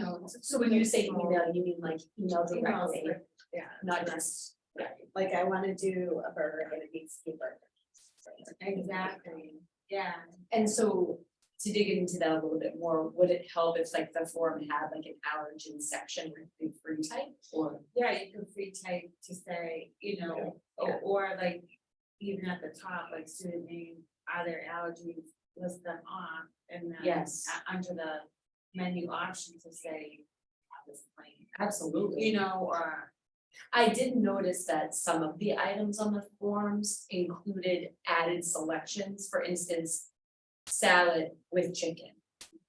phones. So when you say email, you mean like email directly, Yeah, not just. like I wanna do a burger and a beef stew burger. Exactly. Yeah. And so to dig into that a little bit more, would it help if like the forum had like an allergen section with the free type or? Yeah, you can free type to say, you know, or, or like even at the top, like student name, are there allergies, list them off and then. Yes. uh, Under the menu option to say, have this plane, Absolutely. you know, or, I did notice that some of the items on the forms included added selections, for instance, salad with chicken.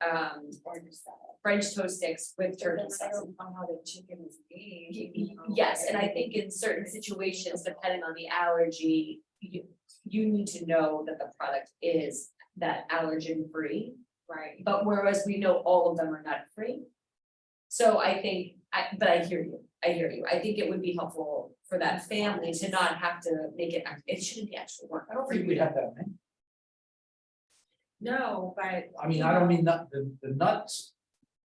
Um, or just that. French toast sticks with turkey I sauce. don't know how the chicken is made. Y- you y- know, Yes, and I think in certain situations, depending on the allergy, you, you need to know that the product is that allergen free. Right, But whereas we know all of them are not free. So I think, I, but I hear you, I hear you. I think it would be helpful for that family to not have to make it, act- it shouldn't be actual work. I don't think we have that many. no, but I mean, I don't mean nut, the, the nuts.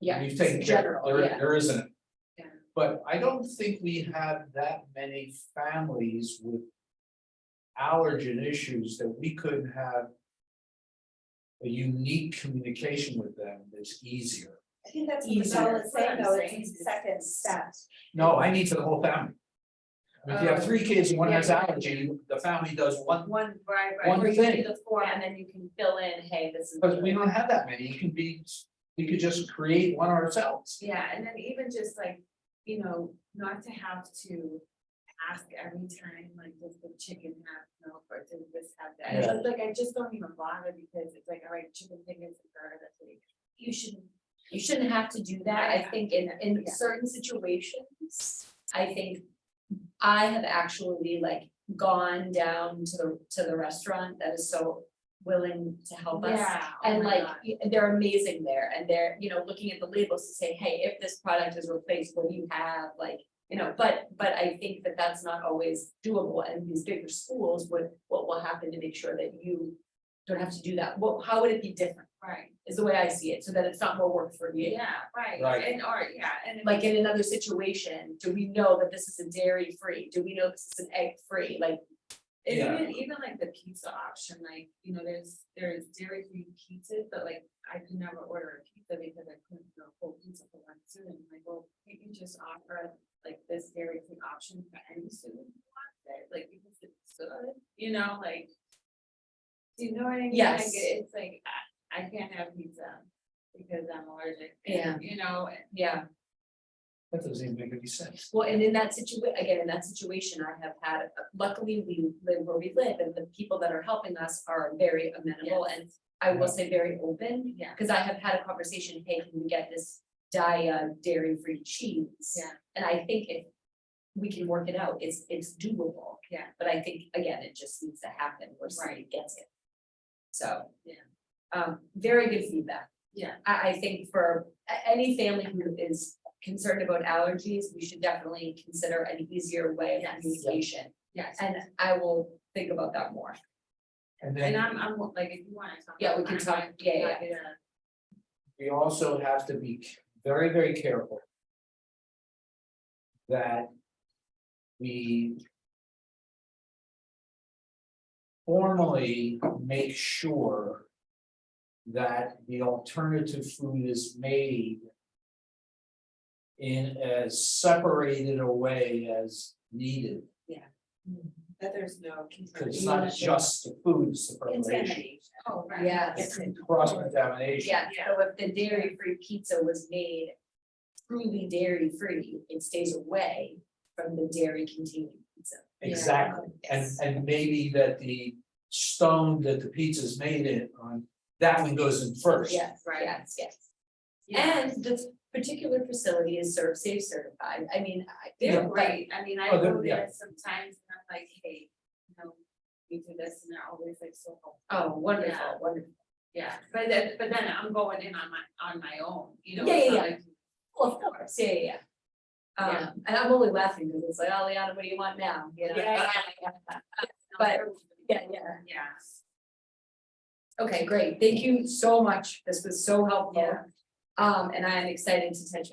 Yeah, We've taken care of, general, there, yeah. there isn't. Yeah. But I don't think we have that many families with allergen issues that we couldn't have a unique communication with them that's easier. I think that's what Easier. Michelle is saying though, That's what I'm saying. it's the second step. No, I need for the whole family. If you have three kids, and one has Um, Yeah. allergy, the family does one, one, right, right. One Or you do thing. the form and then you can fill in, hey, this is. but we don't have that many, it can be, we could just create one ourselves. Yeah, and then even just like, you know, not to have to ask every time, like, does the chicken have milk or does this have that? It's Yeah. just like, I just don't even bother because it's like, all right, chicken fingers and burger, that's what you. you shouldn't, you shouldn't have to do that, I think in, in Yeah. certain situations, I think. I have actually like gone down to the, to the restaurant that is so willing to help us. Yeah. oh And my like, God. y- they're amazing there, and they're, you know, looking at the labels to say, hey, if this product is replaced, what do you have, like, you know, but, but I think that that's not always doable, and these bigger schools, what, what will happen to make sure that you don't have to do that, what, how would it be different? Right, is the way I see it, so that it's not more work for you. yeah, right, Right. and or, yeah, and. if- Like in another situation, do we know that this is a dairy free? Do we know this is an egg free? Like, And Yeah. even, even like the pizza option, like, you know, there's, there's dairy free pizzas, but like, I could never order a pizza because I couldn't do a whole pizza for one student, I'm like, well, can't you just offer like this dairy free option for any student who wants it, like, because it's good, you know, like. Do you know what I mean? Like, Yes. It's like, I, I can't have pizza because I'm allergic, Yeah. and, you know, and- yeah, That doesn't even make any sense. well, and in that situa- again, in that situation, I have had, luckily, we live where we live, and the people that are helping us are very amenable and I will say very open, yeah, because I have had a conversation, hey, can we get this dia dairy free cheese? Yeah. And I think if we can work it out, it's, it's doable. Yeah. But I think, again, it just needs to happen where somebody gets it. So. Yeah. Um, very good feedback. yeah, I, I think for a- any family who is concerned about allergies, we should definitely consider an easier way Yes. of communication. yes. And I will think about that more. And then. And I'm, I'm like, if you wanna talk. Yeah, we about can mine, talk- I'm yeah, yeah, happy to- we also have to be very, very careful. That we. Formally make sure. That the alternative food is made. In as separated a way as needed, That there's no. because it's not just the food, it's the preparation, Oh, right. Yes. it's cross contamination. Yeah, so if the dairy-free pizza was made truly dairy-free, it stays away from the dairy-containing pizza. Exactly, and Yes. and maybe that the stone that the pizza's made in on, that one goes in first. Yes, Right. yes, yes. Yeah. And this particular facility is serve safe certified. I mean, I. They're Yeah. great, I mean, I Oh, they're- go yeah. there sometimes and I'm like, hey, you know, we do this and they're always like so helpful. Oh, wonderful, Yeah. wonderful. Yeah, but then, but then I'm going in on my, on my own, you know. Yeah, it's yeah, not like- Well, of course, yeah, yeah, yeah. Yeah. Um, and I'm only laughing because it's like, oh, Liana, what do you want now? You know? Yeah, But- no, Yeah, yeah. they're- Yeah. Okay, great. Thank you so much. This was so helpful. Yeah. Um, and I am excited to touch